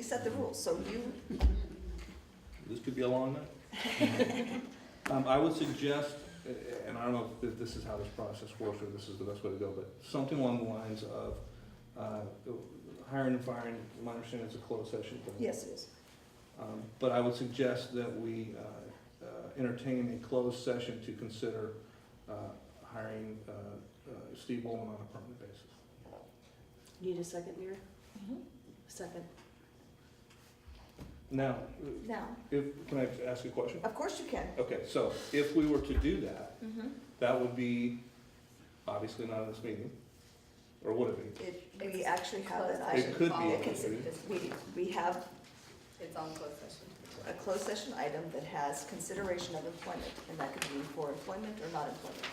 set the rules, so you, This could be a long night. Um, I would suggest, uh, and I don't know if this is how this process works or this is the best way to go, but something along the lines of, uh, hiring and firing, my understanding is a closed session thing. yes, it is. Um, But I would suggest that we uh, uh, entertain a closed session to consider uh, hiring uh, uh, Steve Bowman on a permanent basis. Need a second, Mira? Mm-hmm. Second. Now, Now, if, can I ask a question? of course you can. Okay, so if we were to do that, Mhm. that would be obviously not in this meeting, or would it be? It- We actually have an It item, could be. it consi- we, we have It's on closed session. a closed session item that has consideration of employment, and that could be for employment or not employment.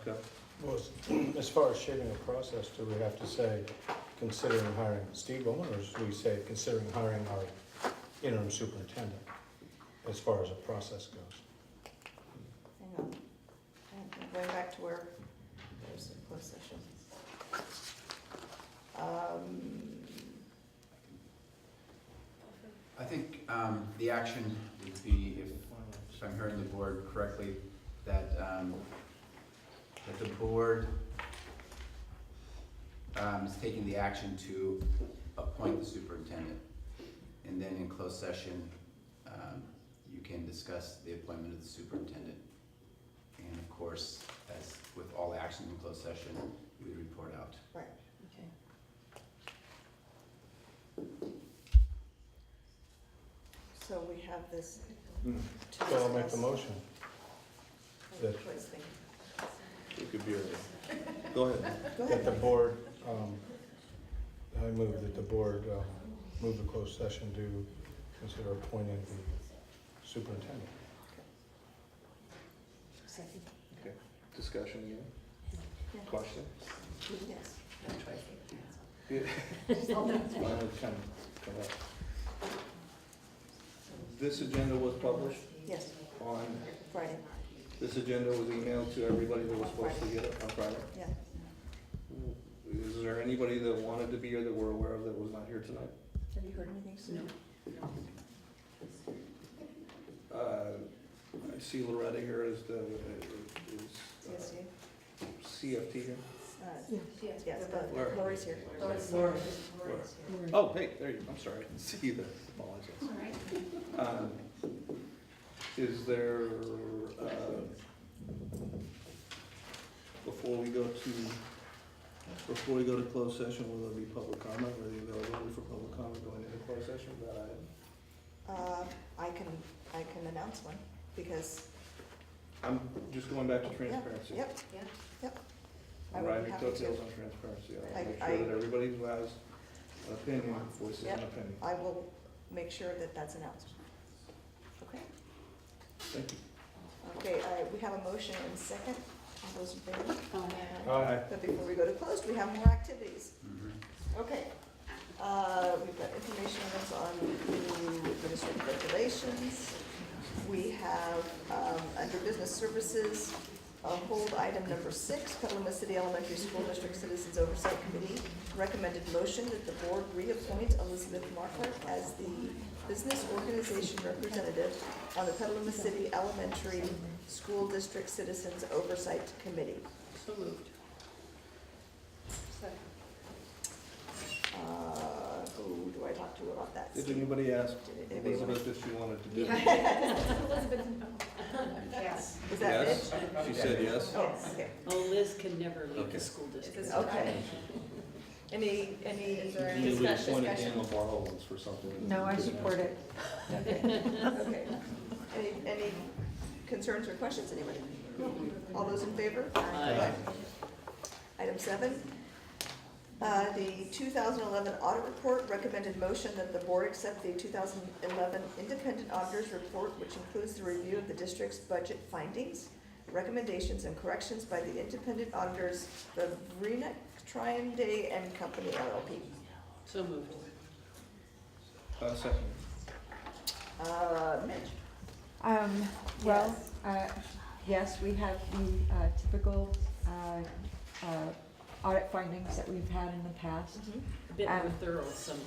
Okay. Well, as- as far as shaping the process, do we have to say considering hiring Steve Bowman, or should we say considering hiring our interim superintendent? As far as the process goes. Hang on, I'm going back to where, there's the closed session. Um, I think um, the action would be, if- if I'm hearing the board correctly, that, um, that the board um, is taking the action to appoint the superintendent. And then in closed session, um, you can discuss the appointment of the superintendent. And of course, as with all actions in closed session, we would report out. Okay. So we have this Hmm, to So I'll make the discuss. motion. that- Please, thank you. It could be, a- go ahead. Go That the ahead. board, um, I move that the board, um, move the closed session to consider appointing the superintendent. Second. Discussion again, Yeah. question? Yes. Yeah. Mine would kind of come up. This agenda was published Yes, on, Friday, this agenda was emailed to everybody that was supposed to get it on Friday. yeah. Is there anybody that wanted to be here that we're aware of that was not here tonight? Have you heard anything? Sue? No. Uh, I see Loretta here as the, is CSU? uh, CFT here. Uh, Yes, but Laura. Lori's here. Oh, hey, there you, I'm sorry, I didn't see you there, apologies. Um, Is there, uh, before we go to, before we go to closed session, will there be public comment, or the availability for public comment going into closed session, that item? Uh, I can, I can announce one, because, I'm just going back to yeah, transparency. yep, Yeah. yep. I would Riding have to. coattails on transparency, I- I'll make I- sure that everybody who has an opinion voices an Yep. opinion. I will make sure that that's announced. Okay, Thank you. okay, uh, we have a motion and second, all those in favor? Uh, Aye. But before we go to closed, we have more activities. Mhm. Okay, uh, we've got information that's on the administrative regulations. We have, um, under business services, uh, hold item number six, Petaluma City Elementary School District Citizens Oversight Committee recommended motion that the board reappoint Elizabeth Markert as the business organization representative on the Petaluma City Elementary School District Citizens Oversight Committee. So moved. Second. Uh, who do I talk to about that? Did anybody ask Did anybody want- Elizabeth if she wanted to do it? Yes. Is that it? Yes. She said yes. Oh, okay. Oh, Liz can never leave Okay. the school district. It's Okay. Any, any, You would appoint Dan LaBarre for something. No, I support it. okay. Any, any concerns or questions, anybody? All those in favor? Aye. Item seven, uh, the 2011 audit report recommended motion that the board accept the 2011 independent auditor's report, which includes the review of the district's budget findings, recommendations, and corrections by the independent auditors, Vavrina Trianday and Company LLP. So moved. Uh, second. Uh, Mitch? Um, well, uh, yes, we have the uh, typical, uh, uh, audit findings that we've had in the past. Mhm. A bit more Um, thorough some